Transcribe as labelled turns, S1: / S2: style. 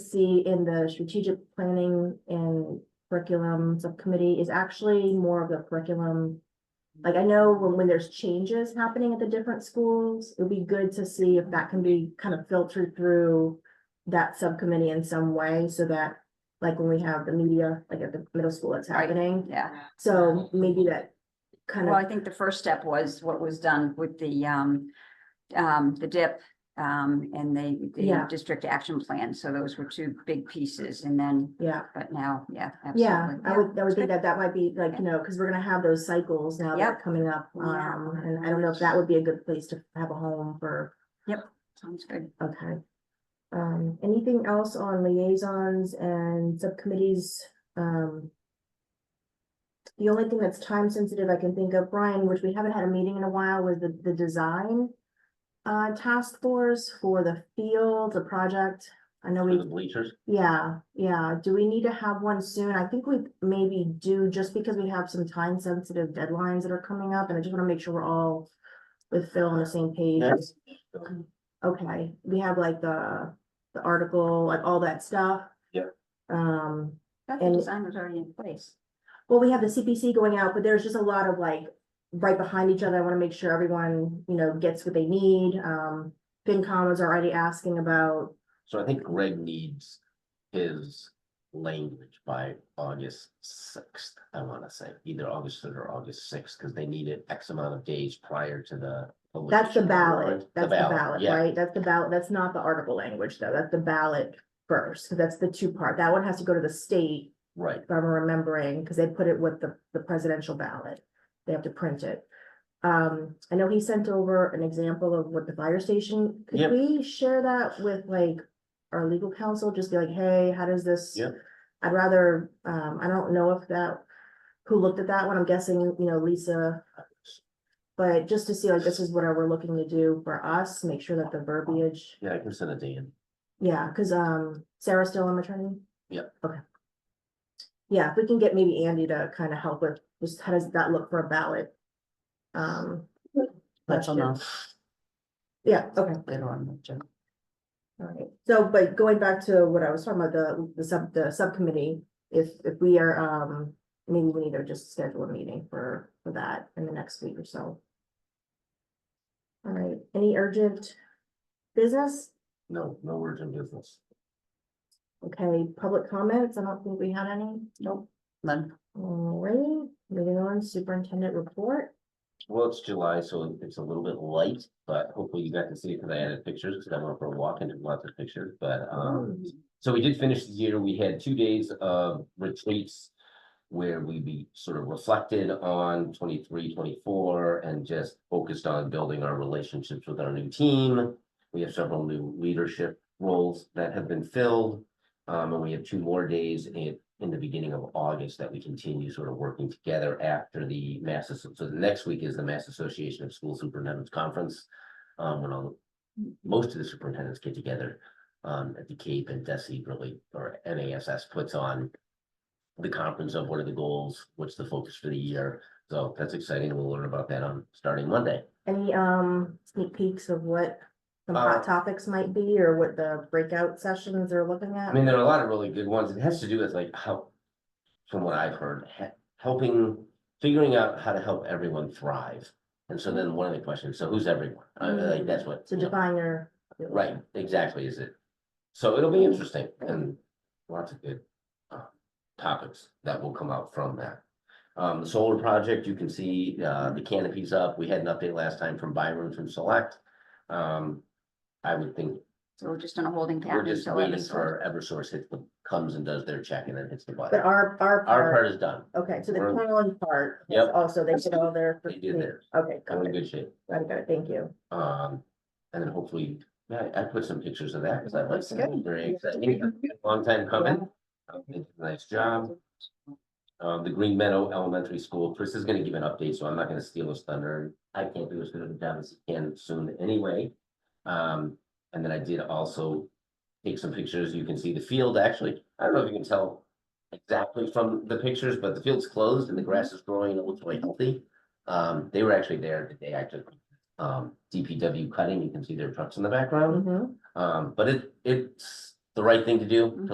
S1: see in the strategic planning and curriculum subcommittee is actually more of the curriculum. Like I know when, when there's changes happening at the different schools, it'd be good to see if that can be kind of filtered through that subcommittee in some way so that, like when we have the media, like at the middle school, it's
S2: Right.
S1: happening.
S2: Yeah,
S1: So maybe that kind
S2: well,
S1: of,
S2: I think the first step was what was done with the um, um, the dip. Um, and the, the
S1: Yeah.
S2: district action plan, so those were two big pieces, and then,
S1: yeah,
S2: but now, yeah.
S1: yeah,
S2: absolutely.
S1: I would, I would
S2: it's
S1: think
S2: good.
S1: that that might be like, you know, because we're gonna have those cycles now that are coming up.
S2: Yeah.
S1: Um, and I don't know if that would be a good place to have a home for
S2: Sounds good.
S1: Okay. Um, anything else on liaisons and subcommittees? Um. The only thing that's time sensitive I can think of, Brian, which we haven't had a meeting in a while, was the, the design. Uh, task force for the field, the project. I know
S3: for the
S1: we,
S3: bleachers.
S1: yeah, yeah. Do we need to have one soon? I think we maybe do just because we have some time sensitive deadlines that are coming up and I just want to make sure we're all with Phil on the same page.
S3: Yeah.
S1: Okay, we have like the, the article, like all that stuff.
S3: Yeah.
S1: Um,
S2: That the
S1: And-
S2: design was already in place.
S1: well, we have the CPC going out, but there's just a lot of like, right behind each other, I wanna make sure everyone, you know, gets what they need, um. FinCom was already asking about,
S3: So I think Greg needs his language by August sixth, I wanna say, either August third or August sixth, cause they need it X amount of days prior to the.
S1: that's the
S3: publication of
S1: ballot,
S3: warrant.
S1: that's the ballot,
S3: yeah.
S1: right? That's the ballot, that's not the article language though, that's the ballot first, 'cause that's the two part, that one has to go to the state.
S3: Right,
S1: if I'm remembering, because they put it with the, the presidential ballot. They have to print it. Um, I know he sent over an example of what the fire station, could
S3: Yep.
S1: we share that with like our legal counsel, just be like, hey, how does this?
S3: Yep.
S1: I'd rather, um, I don't know if that, who looked at that one, I'm guessing, you know, Lisa. But just to see like, this is what we're looking to do for us, make sure that the verbiage
S3: yeah, I can send it to Ian.
S1: yeah, cause um Sarah's still on maternity?
S3: Yep.
S1: Okay. Yeah, if we can get maybe Andy to kind of help with, just how does that look for a ballot? Um, That's
S2: Question.
S1: enough. yeah, okay,
S2: Later on, the agenda.
S1: alright, so, but going back to what I was talking about, the the sub, the subcommittee. If if we are um, maybe we need to just schedule a meeting for for that in the next week or so. Alright, any urgent business?
S3: No, no words in business.
S1: Okay, public comments, I don't think we had any.
S2: Nope, none.
S1: Alright, moving on, superintendent report.
S3: Well, it's July, so it's a little bit light, but hopefully you got to see it, cause I added pictures, cause I went for a walk and did lots of pictures, but, um. So we did finish the year, we had two days of retreats. Where we be sort of reflected on 23, 24, and just focused on building our relationships with our new team. We have several new leadership roles that have been filled. Um, and we have two more days in, in the beginning of August that we continue sort of working together after the Mass, Asso- so the next week is the Mass Association of School Superintendent's Conference. Um, when all, most of the superintendents get together um, at the Cape and Desi really, or NASS puts on the conference of what are the goals, what's the focus for the year. So that's exciting. We'll learn about that on starting Monday.
S1: Any um sneak peeks of what some
S3: Uh,
S1: hot topics might be or what the breakout sessions are looking
S3: I
S1: at?
S3: mean, there are a lot of really good ones. It has to do with like how, from what I've heard, he- helping, figuring out how to help everyone thrive. And so then one of the questions, so who's everyone? I mean, like that's what.
S1: To
S3: you know,
S1: define your.
S3: Right, exactly, is it? So it'll be interesting and lots of good uh, topics that will come out from that. Um, the solar project, you can see uh, the canopies up. We had an update last time from Byron from Select. Um, I would think
S2: So we're just on a holding
S3: we're
S2: pattern
S3: just
S2: until
S3: waiting
S2: Eversource-
S3: for Eversource hits the, comes and does their check and then hits the
S1: But
S3: button.
S1: our our
S3: Our
S1: part,
S3: part is done.
S1: okay, so the
S3: we're-
S1: Cornwall part. is
S3: Yep.
S1: Also, they did all their.
S3: They did theirs.
S1: Okay,
S3: We're
S1: got
S3: in
S1: it,
S3: good shape.
S1: got it, got it, thank you.
S3: Um, and then hopefully, yeah, I I put some pictures of that because I like
S2: Looks
S3: that.
S2: good.
S3: Very exciting. Long time coming. Um, they did a Nice job. Um, the Green Meadow Elementary School, Chris is gonna give an update, so I'm not gonna steal his thunder. I can't do as good of a job as he can soon anyway. Um, and then I did also take some pictures. You can see the field, actually. I don't know if you can tell exactly from the pictures, but the field's closed and the grass is growing and it looks really healthy. Um, they were actually there the day I took, um, DPW cutting. You can see their trucks in the background.
S1: Mhm.
S3: Um, but it, it's the right thing to do, to